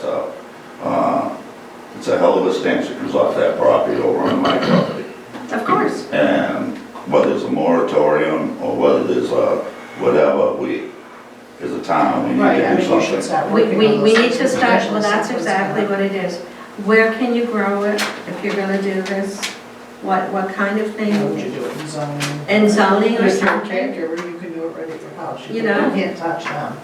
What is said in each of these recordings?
so, uh, it's a hell of a stench that comes off that property over on my property. Of course. And whether it's a moratorium or whether there's a whatever, we, as a town, we Right, I need to mean, do you should something. start We, working we, on we those need to things, start, well, especially that's since- exactly what it is. Where can you grow it if you're gonna do this? What, what kind of How would you thing? do it in zoning? And zoning or If you're a something? caregiver, you can do it right at your house. You know? can't touch them.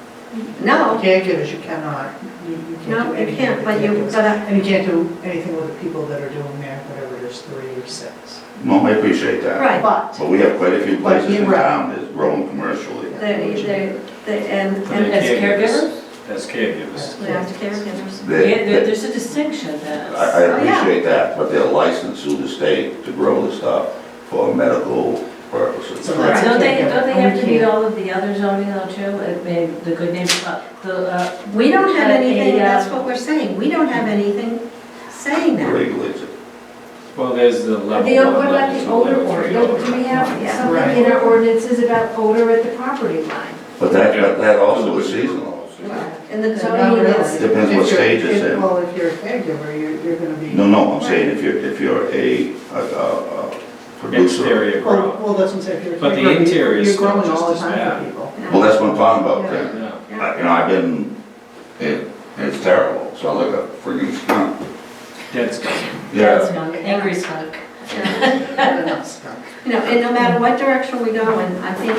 No, Caregivers, you cannot, you, you can't do no, you anything can't, with but you, caregivers. but I, And you can't do anything with the people that are doing that, whatever it is, three or six. No, I appreciate that. right. But, But we have quite a few But places in you're right. town that's grown commercially. They, they, they, and, and As As caregivers? caregivers? As caregivers. as caregivers. Yeah, They- there- they- there's a distinction I that's. I Oh, yeah. appreciate that, but they're licensed through the state to grow the stuff for medical purposes. So that's- Don't they, don't they have to meet Yeah. all of the other zoning though too? Like maybe the good neighbor, uh, the, uh, We don't have Uh, anything, a, uh, that's what we're saying, we don't have anything saying that. Regulates it. Well, there's the level The, one, what about level the two, odor level order? three. Don't- Do we have Yeah. something in our ordinances about odor at the property line? But that, that- that also is seasonal. And the So- zoning really. is, Depends what If you're- stage it's if- in. Well, if you're a caregiver, you're, you're gonna be. No, no, I'm saying if you're, if you're a, a, a a producer. Exterior Well, grow. well, that's what I'm saying, if you're a But the caregiver, you- interior is you're still growing just all the as time bad. for people. Well, that's what I'm talking about then. Yeah. I- You know, I've been, it, it's terrible, so I like a freaking skunk. Dead skin. dead Yeah, skunk, angry skunk. yeah. They're not stuck. you know, and no matter what direction we go in, I think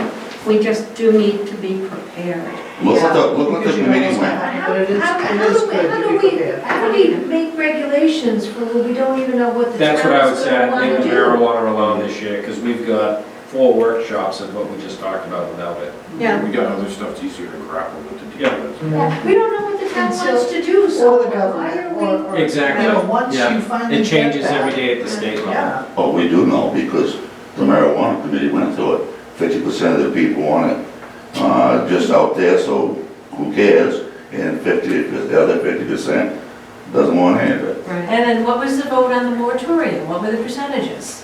we just do need to be prepared. look at the, look at Because the you know meeting what's gonna went. happen, How, But it is, how, it how is do we, good how to do be we, prepared. how do we make regulations for, when we don't even know what the town That's what I would is say, I gonna think wanna the do? marijuana alone this year, because we've got four workshops of what we just talked about without it. Yeah, We got other stuff that's easier to grapple with to Yeah. deal with. Yeah, We don't know what the town And so- wants to do, Or so the why government, or. are or- Exactly. You know, once Yeah. you finally It get changes that- every day at the state level. Yeah, But we do know because the marijuana committee went through it. Fifty percent of the people want it, uh, just out there, so who cares? And fifty, the other fifty percent doesn't want to handle it. right. And then what was the vote on the moratorium? What were the percentages?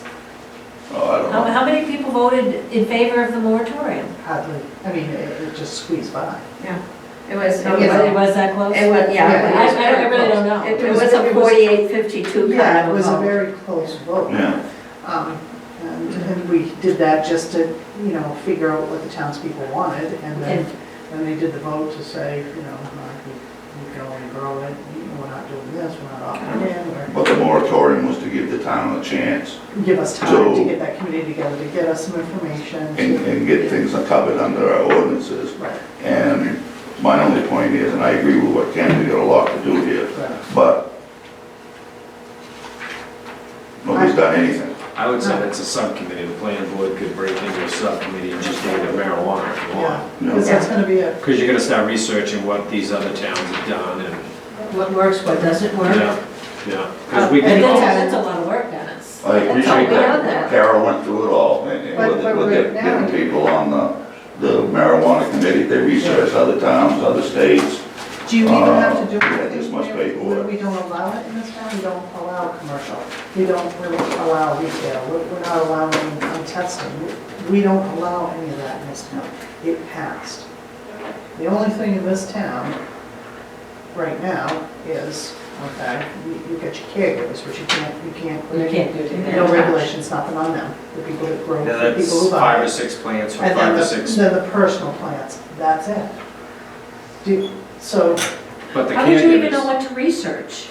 Oh, I don't How, know. how many people voted in favor of the moratorium? hardly, I mean, it it just squeezed by. It was, it Was it was, was that close? it was, I, yeah. Yeah. it was- I I really don't It know. it was a It was- forty-eight, fifty-two Yeah, it kind of was a vote. very close vote. Yeah, Um, And and we did that just to, you know, figure out what the townspeople wanted, and then, then they did the vote to say, you know, like, we- we can only grow it, you know, we're not doing this, we're not offering it, but the moratorium was to give the town a chance or give us time to get that committee together, to get us some information. and, to- and get things covered under our ordinances. Right, And my only point is, and I agree with what Ken, we got a lot to do here, right. but nobody's done anything. I would say that's a subcommittee, the planning board could break into a subcommittee and just deal with marijuana if you Yeah, want. because that's gonna be a, Because you're gonna start researching what these other towns have done and, What works, what doesn't work? yeah, yeah. 'Cause we Uh, can And that's, all- that's a lot of work, Dennis. I appreciate we know that. that. Carol went through it all, and and But- with, but with right the- now- getting people on the, the marijuana committee, they researched other towns, other states. do you even have to do Uh, yeah, anything? this must there? be ordered. We don't allow it in this town, we don't allow commercial, we don't really allow retail, we're we're not allowing um, testing, We- we don't allow any of that in this town. It passed. The only thing in this town right now is, okay, you you got your caregivers, but you can't, you can't. You can't do it. No regulations, nothing on them, the people that grow, Yeah, the people that's who buy. five it. or six plants or And then five or the, six, then the personal plants, that's it. Do, so, but the How would you even know caregivers. what to research?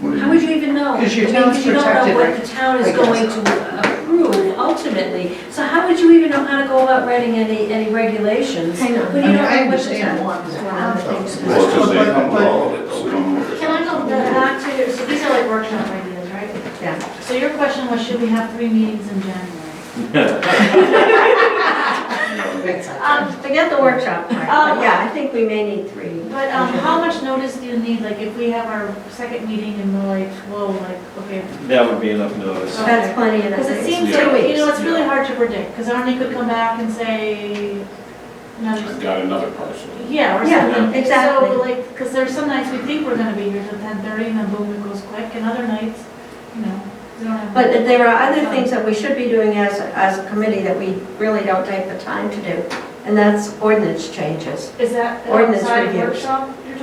What do you How would you even know? 'Cause your I mean, town's 'cause you don't know protected, what right? the town is I guess. going to approve ultimately, so how would you even know how to go about writing any, any regulations? Hang on. When I you mean, don't I know what the understand town. one, one one of the of things. those. Well, it's just they come with But- all of it, though, we don't know what Can I go back to, so these are like workshop ideas, right? Yeah, So your question was, should we have three meetings in January? but- they're. Um, forget the workshop part, but Oh, yeah, I think we may need three. But um, how much notice do you need, like if we have our second meeting and we're like, whoa, like, okay. That would be enough notice. That's plenty of Because it that. seems Yeah. like, you know, it's really Yeah. hard to predict, because Arnie could come back and say, I've another, got another parcel. yeah, or Yeah, something. exactly. So like, because there's some nights we think we're gonna be here till ten thirty and then boom, it goes quick, and other nights, you know, we don't have. But there are other things that we should be doing as, as a committee that we really don't take the time to do, and that's ordinance changes. Is that an Ordinance outside reviews. workshop you're